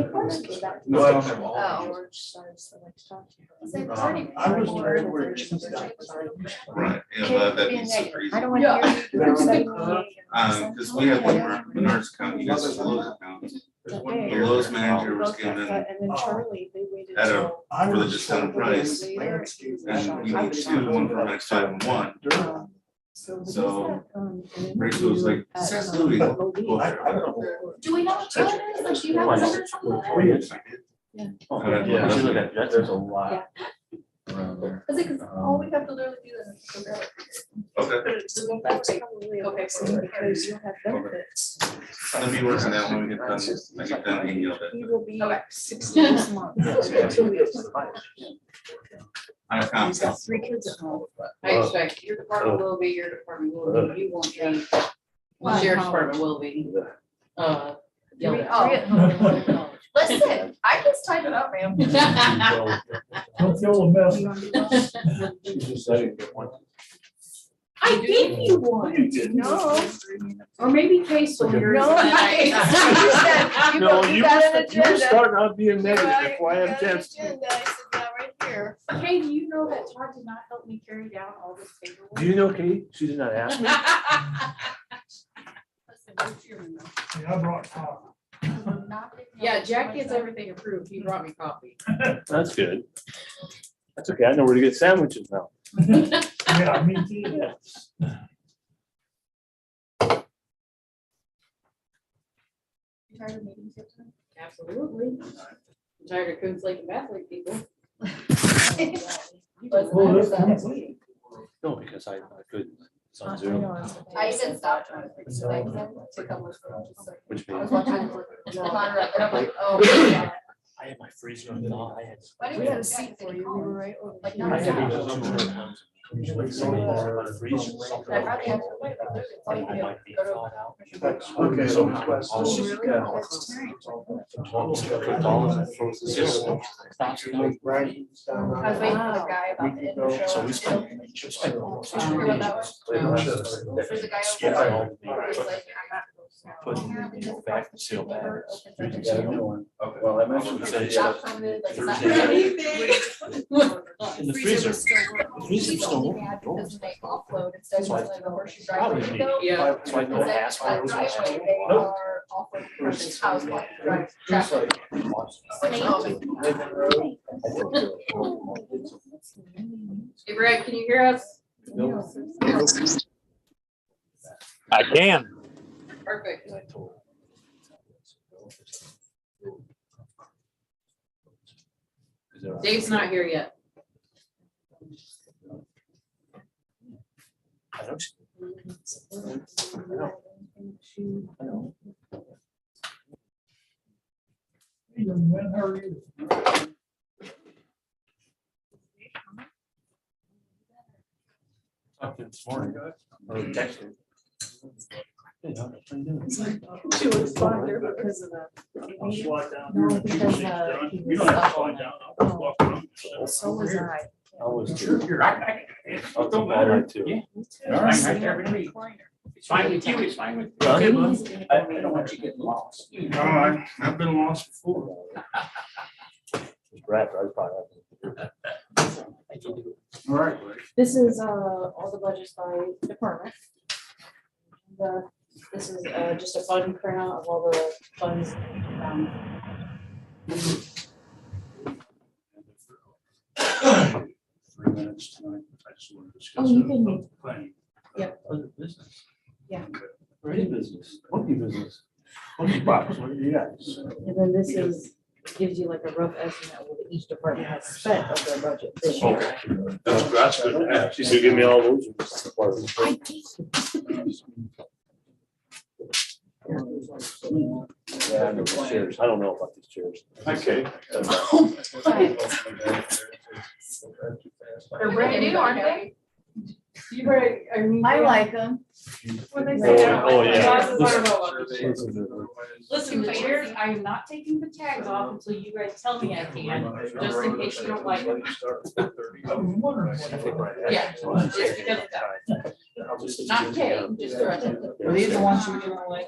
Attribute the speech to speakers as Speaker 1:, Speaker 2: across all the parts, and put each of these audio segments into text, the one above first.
Speaker 1: then go back. to-
Speaker 2: No, I don't have all of
Speaker 1: Oh,
Speaker 2: them.
Speaker 1: or just start us the next time.
Speaker 2: Um,
Speaker 3: Um, I was trying to
Speaker 1: Or-
Speaker 3: work.
Speaker 4: Right, yeah,
Speaker 1: Can't
Speaker 4: that- that'd
Speaker 1: be
Speaker 4: be
Speaker 1: a
Speaker 4: super
Speaker 1: negative.
Speaker 4: easy.
Speaker 1: I don't want to hear. you say
Speaker 4: Um, cause we have one Menards Menards account, you guys have Lowe's account.
Speaker 2: There's one
Speaker 1: Okay.
Speaker 4: The
Speaker 2: here.
Speaker 4: Lowe's manager was
Speaker 1: both that,
Speaker 4: given,
Speaker 1: but-
Speaker 4: and
Speaker 1: And then
Speaker 3: Oh.
Speaker 1: Charlie, they waited
Speaker 4: At a-
Speaker 1: till.
Speaker 3: I
Speaker 4: For the
Speaker 3: was
Speaker 4: discounted
Speaker 3: trying to
Speaker 4: price.
Speaker 3: do landscape.
Speaker 4: and we need two, one for Max Five and one.
Speaker 3: Dirt.
Speaker 1: So. um,
Speaker 4: So, Rachel was like,
Speaker 1: Uh,
Speaker 4: says Louis.
Speaker 3: I, I don't know.
Speaker 5: Do we know what time it is? Like, do you have a number somewhere?
Speaker 6: Yeah, that's a- that's- there's a lot around there.
Speaker 5: Is it, cause all we have to literally do is figure out.
Speaker 4: Okay,
Speaker 5: Okay,
Speaker 1: Because
Speaker 5: so-
Speaker 1: you'll have benefits.
Speaker 4: let me work on that when we get done, I get done, and you'll.
Speaker 1: He will be
Speaker 5: Okay.
Speaker 1: sixty this month.
Speaker 4: Yeah.
Speaker 1: Two weeks.
Speaker 4: I
Speaker 1: He's
Speaker 4: found.
Speaker 1: got three kids at home.
Speaker 7: I expect your department will be, your department will be, you won't be, the sheriff's department will be. Uh, yelled
Speaker 1: Three-
Speaker 7: at.
Speaker 1: oh, at home.
Speaker 5: Listen, I just type it up, ma'am.
Speaker 3: Don't feel a mess.
Speaker 1: You want to go?
Speaker 6: She's just letting it one.
Speaker 5: I gave you one.
Speaker 3: You didn't.
Speaker 1: No.
Speaker 7: Or maybe case will yours.
Speaker 1: No, I- you said, you you got an agenda.
Speaker 6: out
Speaker 1: Right, you
Speaker 6: being
Speaker 1: got an agenda. I said, yeah, right here.
Speaker 5: Hey, do you know that Todd did not help me carry down all this paperwork?
Speaker 6: Do you know Kate? She did not ask me.
Speaker 5: Listen, you're human, though.
Speaker 3: I brought pop.
Speaker 5: I'm not picking up
Speaker 7: Yeah, Jack gets
Speaker 5: myself.
Speaker 7: everything approved. He brought me coffee.
Speaker 6: That's good. That's okay. I know where to get sandwiches now.
Speaker 3: Yeah, me too.
Speaker 5: You tired of meetings yet?
Speaker 7: Absolutely. I'm tired of Coons Lake and Bath Lake people.
Speaker 3: Well, this-
Speaker 6: No, because I I couldn't. It's
Speaker 1: Uh, I- I
Speaker 6: on Zoom.
Speaker 1: know, I was like-
Speaker 5: I said stop trying to fix it. I said, to come with me, just like-
Speaker 6: Which
Speaker 5: I was
Speaker 6: means.
Speaker 5: watching the Conrad, and I'm like, oh. my God.
Speaker 6: I had my freezer on. thaw. I had.
Speaker 5: Why did
Speaker 1: We had a seat for you, we were right over.
Speaker 5: Like,
Speaker 1: here.
Speaker 5: not
Speaker 6: I had
Speaker 5: Yeah.
Speaker 6: it a number of times. Usually someone has it on the freezer or something.
Speaker 5: I probably have to wait, but there's a
Speaker 6: Something
Speaker 5: video.
Speaker 6: might be thawed out.
Speaker 3: Okay, so my question.
Speaker 1: She's really a
Speaker 3: Yeah.
Speaker 1: vegetarian.
Speaker 6: Almost got the dollars and frozen. It's just- stops it out.
Speaker 5: I was waiting for the guy about the. end of the
Speaker 6: So we
Speaker 5: show.
Speaker 6: spent. we spent almost
Speaker 5: Did you
Speaker 6: two
Speaker 5: hear about that one?
Speaker 6: days.
Speaker 5: There's a guy
Speaker 6: Skip
Speaker 5: over
Speaker 6: all the
Speaker 5: there who was
Speaker 6: meat.
Speaker 5: like, I'm not supposed to know.
Speaker 6: Put
Speaker 5: Apparently
Speaker 6: it in
Speaker 5: just
Speaker 6: back
Speaker 5: across
Speaker 6: and seal
Speaker 5: the river,
Speaker 6: back.
Speaker 5: opens up
Speaker 6: You
Speaker 5: the
Speaker 6: got a
Speaker 5: channel.
Speaker 6: new one.
Speaker 4: Okay.
Speaker 6: Well, I mentioned that. yeah,
Speaker 5: Shop from it, like, it's not-
Speaker 6: Thursday.
Speaker 5: The
Speaker 6: In the freezer.
Speaker 5: was still working.
Speaker 6: The freezer was still working.
Speaker 5: Because when they offload, instead of
Speaker 6: So I-
Speaker 5: like the horseshoe
Speaker 6: Probably
Speaker 5: driveway
Speaker 6: need-
Speaker 5: window,
Speaker 7: Yeah.
Speaker 6: That's why no
Speaker 5: instead of
Speaker 6: ass.
Speaker 5: that driveway, they
Speaker 6: Nope.
Speaker 5: are offloading from this house, like, drive
Speaker 3: It's
Speaker 5: traffic.
Speaker 3: like-
Speaker 7: Hey Brad, can you hear us?
Speaker 8: I can.
Speaker 7: Perfect. Dave's not here yet.
Speaker 6: I don't see- I don't.
Speaker 3: Hey, young man, how are you?
Speaker 6: Talked to him this morning. Or texted. Hey, how you doing?
Speaker 1: She was fine there because of the.
Speaker 3: I'll slide down. here
Speaker 1: No,
Speaker 3: when
Speaker 1: because,
Speaker 3: you
Speaker 1: uh,
Speaker 3: get done.
Speaker 1: he
Speaker 3: You don't have
Speaker 1: was-
Speaker 3: to slide down. I'll just walk around.
Speaker 1: So was I.
Speaker 6: I was.
Speaker 3: Sure, you're right.
Speaker 6: I was
Speaker 3: Don't
Speaker 6: mad
Speaker 3: matter.
Speaker 6: at too.
Speaker 3: Yeah.
Speaker 1: Me too.
Speaker 3: All right, right there, every week. It's fine with you, it's fine with.
Speaker 6: Huh?
Speaker 3: Okay, well,
Speaker 1: He's gonna
Speaker 6: I,
Speaker 1: go
Speaker 6: I don't want you getting lost.
Speaker 3: you
Speaker 4: Oh,
Speaker 3: know, I-
Speaker 4: I- I've been lost before.
Speaker 6: Brad, I was probably.
Speaker 4: All right, buddy.
Speaker 1: This is uh, all the budgets by department. The, this is uh, just a fun printout of all the funds. um,
Speaker 4: Three minutes tonight, I just want to discuss.
Speaker 1: Oh, you
Speaker 4: it
Speaker 1: can-
Speaker 4: about the planning.
Speaker 1: Yep.
Speaker 4: Other business.
Speaker 1: Yeah.
Speaker 6: Or any business, monkey business, monkey box, what do you got?
Speaker 1: And then this is, gives you like a rough estimate of what each department has spent of their budget this year.
Speaker 6: That's, that's good. She's gonna give me all those.
Speaker 1: I think
Speaker 6: Yeah, I know the chairs. I don't know about these chairs.
Speaker 4: Okay.
Speaker 5: They're brand new, aren't they?
Speaker 7: You Brad, I mean.
Speaker 1: them.
Speaker 7: What they
Speaker 6: Oh,
Speaker 7: say.
Speaker 6: yeah. Oh, yeah.
Speaker 7: Listen, the chairs, I am not taking the tags off until you guys tell me I can, just in case you don't like them.
Speaker 3: I
Speaker 1: Mm-hmm.
Speaker 3: was wondering. what-
Speaker 7: Yeah, just because of that. Not Kay, just the rest of
Speaker 6: Are these
Speaker 7: the ones you didn't like?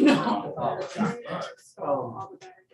Speaker 7: No.
Speaker 5: All the-
Speaker 3: Um,
Speaker 5: all the batteries.